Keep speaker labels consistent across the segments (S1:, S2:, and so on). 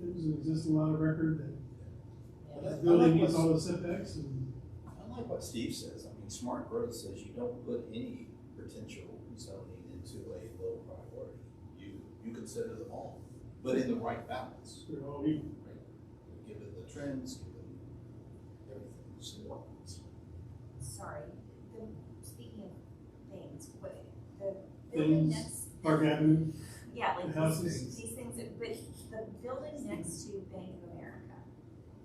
S1: there's an existing lot of record that
S2: I
S1: the
S2: like
S1: building meets all
S2: what-
S1: the setbacks and.
S2: I like what Steve says, I mean, smart growth says you don't put any potential zoning into a low priority. You, you consider them all, but in the right balance,
S1: They're all equal.
S2: right? Given the trends, given everything, so.
S3: sorry, the, speaking of things, what, the building
S1: Things.
S3: next,
S1: Park Avenue,
S3: yeah, like
S1: The
S3: these,
S1: houses.
S3: these things, that- but the building next to Bank of America,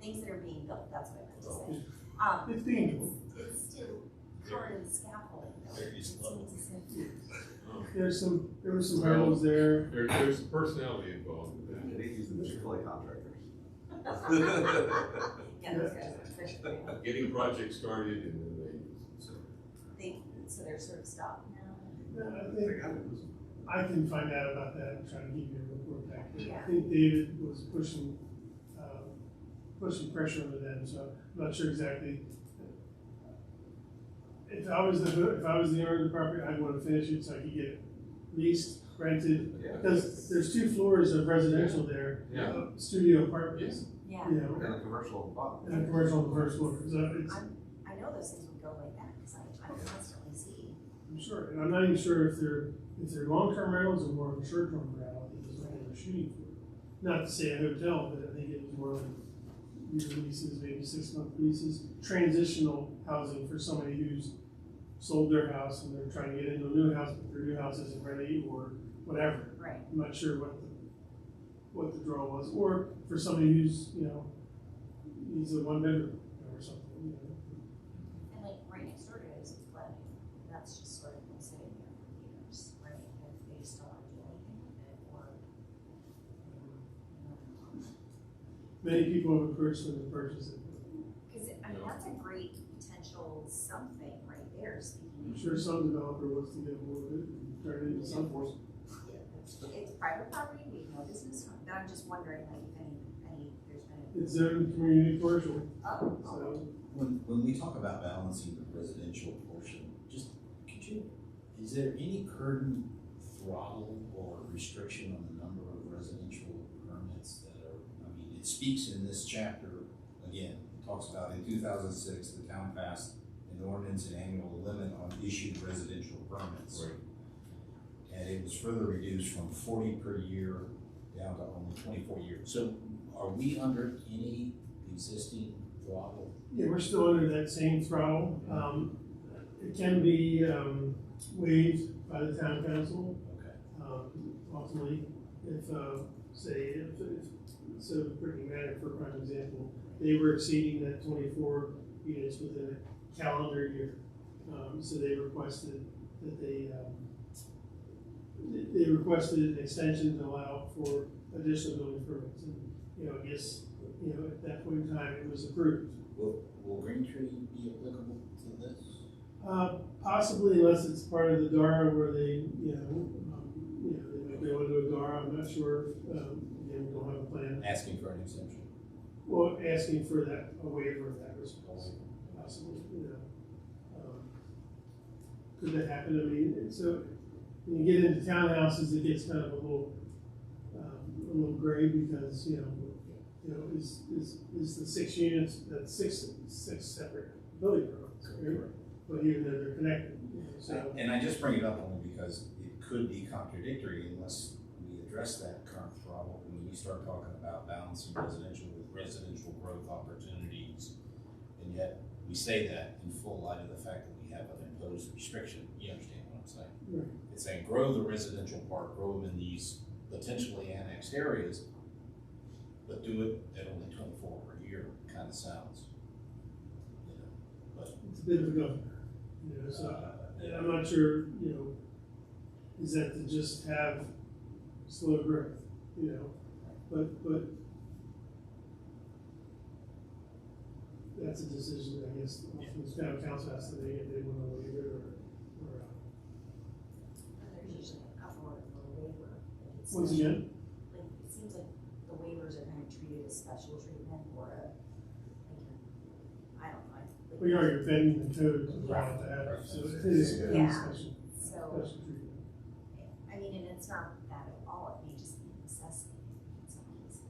S3: things that are being built, that's what I meant to say. Um,
S1: it's dangerous.
S3: it's, it's still covered in scaffolding. though.
S4: There is
S3: It
S4: level.
S3: seems as if-
S1: There's some, there were some hurdles there.
S5: There, there's some personality involved in that.
S6: They use the Chick-fil-A contractors.
S3: Yeah, those guys are especially,
S5: Getting projects started and then
S3: they, so they're sort of stopped now.
S1: Yeah, I
S6: They
S1: think
S6: got it.
S1: I can find out about that and try to give you a report back. But
S3: Yeah.
S1: I think David was pushing, uh, pushing pressure on them, so I'm not sure exactly. If I was the, if I was the owner of the property, I'd want to finish it so I could get it leased, rented.
S6: Yeah.
S1: Because there's two floors of residential there,
S5: they, yeah,
S1: of studio apartments,
S3: Yeah,
S1: you know,
S6: And the commercial on the bottom.
S1: and a commercial on the first floor. So it's,
S3: I know those things would go like that, cause I, I constantly see.
S1: I'm sure, and I'm not even sure if they're, if they're long-term rentals or more of a short-term rental, I think is what they were shooting for. Not to say a hotel, but I think it was more like year leases, maybe six-month leases, transitional housing for somebody who's sold their house and they're trying to get into a new house, but their new house isn't ready or whatever.
S3: Right.
S1: I'm not sure what the, what the draw was, or for somebody who's, you know, needs a one-bedroom or something, you know.
S3: And like right next door to it is a flooding, and that's just sort of been sitting there for years, right? And they just don't want to do anything with it or.
S1: Many people have approached them to purchase it.
S3: Cause I mean, that's a great potential something right there, speaking
S1: I'm
S3: of,
S1: sure some developer wants to get more of it and turn it into something.
S3: it's private property, we have no business on, it, but I'm just wondering like if any, any, there's been,
S1: It's zoned community commercial,
S3: a- oh,
S1: so
S7: When, when we talk about balancing the residential portion, just, could you, is there any current throttle or restriction on the number of residential permits that are, I mean, it speaks in this chapter, again, it talks about in two thousand six, the town passed an ordinance and annual limit on issued residential permits.
S5: Right.
S7: And it was further reduced from forty per year down to only twenty-four years. So are we under any existing throttle
S1: Yeah, we're still under that same throttle. Um, it can be, um, waived by the town council.
S7: Okay.
S1: Um, ultimately, if, uh, say, if, if, so Brittany Manor, for prime example, they were exceeding that twenty-four units within a calendar year. Um, so they requested that they, um, they, they requested an extension to allow for additional building permits. And, you know, I guess, you know, at that point in time, it was approved.
S7: Will, will Green Tree be applicable to this?
S1: Uh, possibly unless it's part of the DARA where they, you know, um, you know, they might be able to do a DARA, I'm not sure, um, again, we don't have a plan.
S7: Asking for an exemption.
S1: Well, asking for that, a waiver of that response, possibly, you know. Um, Could that happen, I mean, and so, when you get into townhouses, it gets kind of a little, um, a little gray because, you know, you know, is, is, is the six units, that's six, six separate building permits, right? But even though they're connected, you know, so.
S7: And I just bring it up only because it could be contradictory unless we address that current problem. When you start talking about balancing residential with residential growth opportunities, and yet we say that in full light of the fact that we have an imposed restriction, you understand what I'm saying?
S1: Right.
S7: It's saying grow the residential part, grow them in these potentially annexed areas, but do it at only twenty-four per year, kinda sounds. you know, uh,
S1: It's a bit of a governor, you know, so, and I'm not sure, you know, is that to just have slow growth, you know, but, but that's a decision, I guess, the town council has to make, if they wanna waive it or, or, uh,
S3: there's usually a couple of little waiver. but it's
S1: once
S3: not-
S1: again,
S3: like, it seems like the waivers are kind of treated as special treatment or a, like, I don't know. like-
S1: we are bending the code around that, so it is
S3: Yeah.
S1: special,
S3: So,
S1: special treatment.
S3: I mean, and it's not